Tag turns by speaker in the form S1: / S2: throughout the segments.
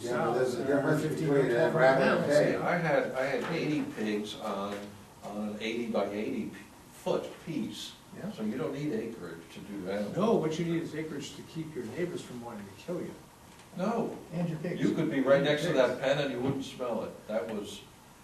S1: Yeah, but there's a
S2: south,
S1: difference
S2: uh,
S1: between
S2: 15 or
S1: that
S2: 12
S1: rabbit
S2: miles.
S1: and pig.
S3: See, I had, I had eighty pigs on, on an eighty by eighty p- foot piece,
S2: Yeah.
S3: so you don't need acreage to do that.
S2: No, what you need is acreage to keep your neighbors from wanting to kill you.
S3: No,
S4: And your pigs.
S3: you could be right next to that pen and you wouldn't smell it, that was,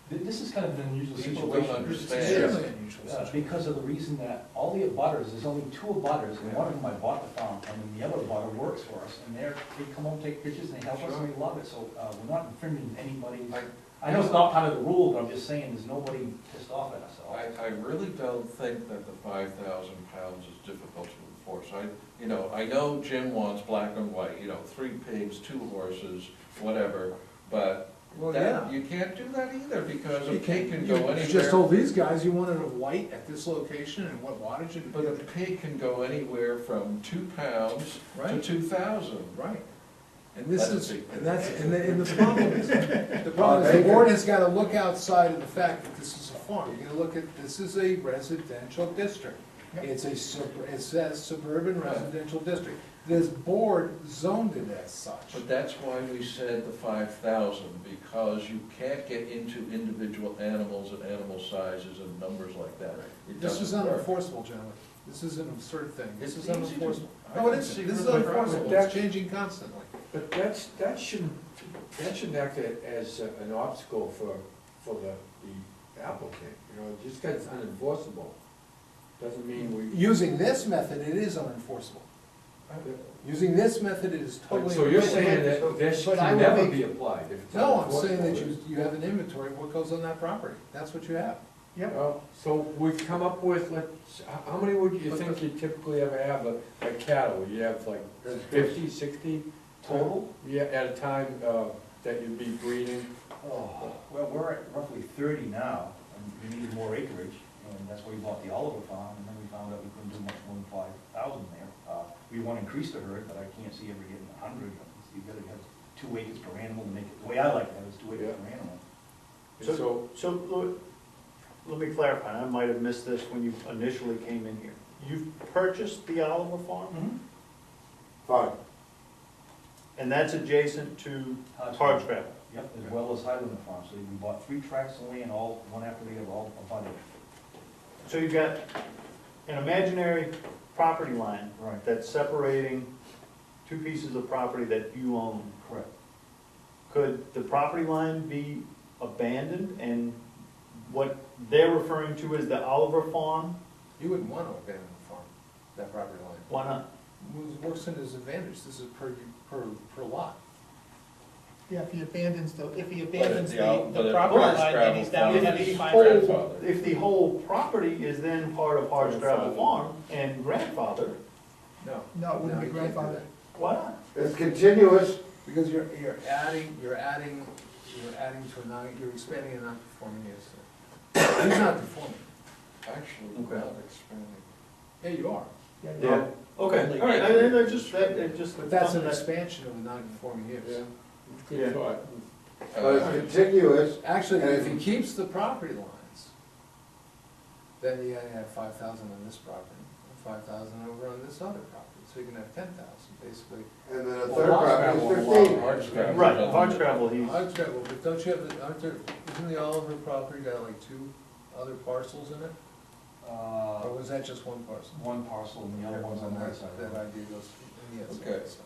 S5: Th- This is kind of an unusual
S3: People
S5: situation.
S3: don't
S2: It's
S3: understand.
S2: extremely unusual
S5: Uh,
S2: situation.
S5: Because of the reason that all the abutters, there's only two abutters, and one of them I bought the farm from, and the other abutter works for us, and they're, they come home, take pictures, and they help us, and we love it, so, uh, we're not infringing anybody's.
S3: I,
S5: I know it's not part of the rule, but I'm just saying, there's nobody pissed off at us at all.
S3: I, I really don't think that the five thousand pounds is difficult to enforce. I, you know, I know Jim wants black and white, you know, three pigs, two horses, whatever, but
S2: Well,
S3: that,
S2: yeah.
S3: you can't do that either, because a
S2: You
S3: pig can
S2: you-
S3: go
S2: You just
S3: anywhere.
S2: told these guys you wanted a white at this location and what wattage and.
S3: But a pig can go anywhere from two pounds to
S2: Right.
S3: two thousand.
S2: Right. And this is,
S3: That's a big-
S2: and that's, and the, and the problem is, the
S1: Uh,
S2: problem is
S1: they
S2: the board
S1: could-
S2: has gotta look outside of the fact that this is a farm. You're gonna look at, this is a residential district.
S5: Yep.
S2: It's a sub, it says suburban residential district. This board zoned it as such.
S3: But that's why we said the five thousand, because you can't get into individual animals and animal sizes and numbers like that. It
S2: This is
S3: doesn't work.
S2: unenforceable, gentlemen. This is an absurd thing. This
S3: It's
S2: is
S3: easy to-
S2: unenforceable.
S3: I
S2: No, it
S3: can
S2: is,
S3: see
S2: this is
S3: where the problem
S2: unenforceable.
S3: is.
S2: It's changing constantly.
S6: But that's, that shouldn't, that shouldn't act a- as a- an obstacle for, for the the applicant, you know, just because it's unenforceable, doesn't mean we.
S2: Using this method, it is unenforceable. Using this method, it is totally.
S6: So you're
S2: unenforceable.
S6: saying that this
S2: But I
S6: can
S2: would
S6: never
S2: make-
S6: be applied if it's
S2: No, I'm
S6: unenforceable.
S2: saying that you, you have an inventory of what goes on that property, that's what you have.
S4: Yep,
S6: Well, So we've come up with, let's, how- how many would you
S2: But
S6: think you typically ever have a a cattle? You have like fifty, sixty?
S5: Total?
S6: Yeah, at a time uh, that you'd be breeding?
S5: Oh, well, we're at roughly thirty now, and we needed more acreage, and that's why we bought the Oliver farm, and then we found out we couldn't do much more than five thousand there. Uh, We want to increase the herd, but I can't see ever getting a hundred, you gotta have two acres per animal to make it, the way I like that is two acres
S6: Yeah.
S5: per animal.
S6: And so
S7: So, Lou- let me clarify, I might have missed this when you initially came in here. You've purchased the Oliver Farm,
S1: Fine.
S7: and that's adjacent to
S5: Hodge
S7: Hodge
S5: Farm.
S7: Gravel.
S5: Yep, as well as Highland Farm, so we bought three tracts of land, all, one after the other, all abutted.
S7: So you've got an imaginary property line
S5: Right.
S7: that's separating two pieces of property that you own.
S5: Correct.
S7: Could the property line be abandoned and what they're referring to as the Oliver Farm?
S2: You wouldn't want to abandon the farm, that property line.
S7: Why not?
S2: It Works in his advantage, this is per, per, per lot.
S4: yeah, if he abandons the, if he
S3: But
S4: abandons
S3: it's
S4: the,
S3: al- but
S4: the
S3: it
S4: property
S3: was
S4: line, then he's down
S3: gravel
S4: to
S3: farm.
S7: If the
S4: eighty-five.
S7: whole-
S3: grandfather.
S7: If the whole property is then part of Hodge Gravel
S3: Grandfather.
S7: Farm and grandfather,
S3: No.
S4: No, it wouldn't be
S2: No, you can't do
S4: grandfathered.
S7: why not?
S1: It's continuous,
S2: Because you're, you're adding, you're adding, you're adding to a non, you're expanding a non-conforming use. He's not conforming.
S3: Actually,
S7: Okay.
S3: not expanding.
S2: Yeah, you are,
S4: Yeah,
S7: Yeah.
S4: yeah.
S7: Okay, all right, I, I I just, that, it just.
S2: but that's an expansion of a non-conforming use.
S6: Good thought.
S1: but it's
S3: Uh,
S1: continuous,
S2: Actually, if he keeps the property lines, then you gotta have five thousand on this property, five thousand over on this other property, so you can have ten thousand, basically.
S1: and then a
S2: Well,
S1: third
S2: lot
S1: property
S3: gravel,
S1: is
S3: lot
S1: fifteen.
S3: large gravel.
S7: Right, Hodge Gravel, he's,
S2: I've got, well, but don't you have, the- aren't there, isn't the Oliver property got like two other parcels in it?
S5: Uh,
S2: Or was that just one parcel?
S5: one parcel and the other one's on the right side.
S2: That idea goes, yeah, it's-
S3: Okay.
S2: it's-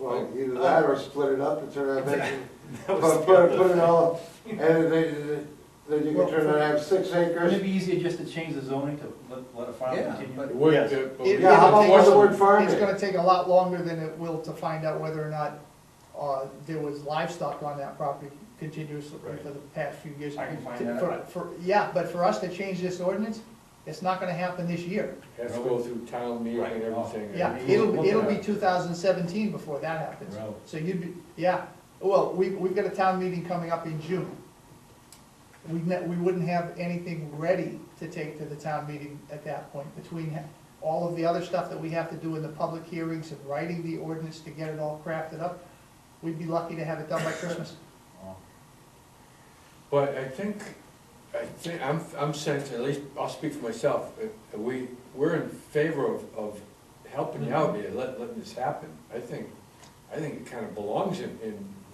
S1: Well, either that or split it up and turn it back,
S7: That
S1: put,
S7: was
S1: put put it all, and then, they- then you can turn it out six
S5: Wouldn't it
S1: acres.
S5: be easier just to change the zoning to let, let a farm
S2: Yeah,
S5: continue?
S2: but-
S6: It would,
S7: Yes.
S6: uh, but
S4: It-
S6: we-
S1: Yeah, how about
S4: it'll take-
S1: the word farming?
S4: It's gonna take a lot longer than it will to find out whether or not, uh, there was livestock on that property continuously
S7: Right.
S4: for the past few years.
S5: I can find
S4: To-
S5: that
S4: for-
S5: out.
S4: For, yeah, but for us to change this ordinance, it's not gonna happen this year.
S6: Has to go through town meeting and everything.
S4: Yeah,
S5: Yeah.
S4: it'll, it'll be
S6: Yeah.
S4: two thousand seventeen before that happens.
S5: Really?
S4: So you'd be, yeah, well, we, we've got a town meeting coming up in June. We, ne- we wouldn't have anything ready to take to the town meeting at that point, between ha- all of the other stuff that we have to do in the public hearings and writing the ordinance to get it all crafted up. We'd be lucky to have it done by Christmas.
S5: Oh.
S6: But I think, I think, I'm, I'm sensing, at least, I'll speak for myself, uh, we, we're in favor of, of helping you out here, let, letting this happen. I think, I think it kind of belongs in, in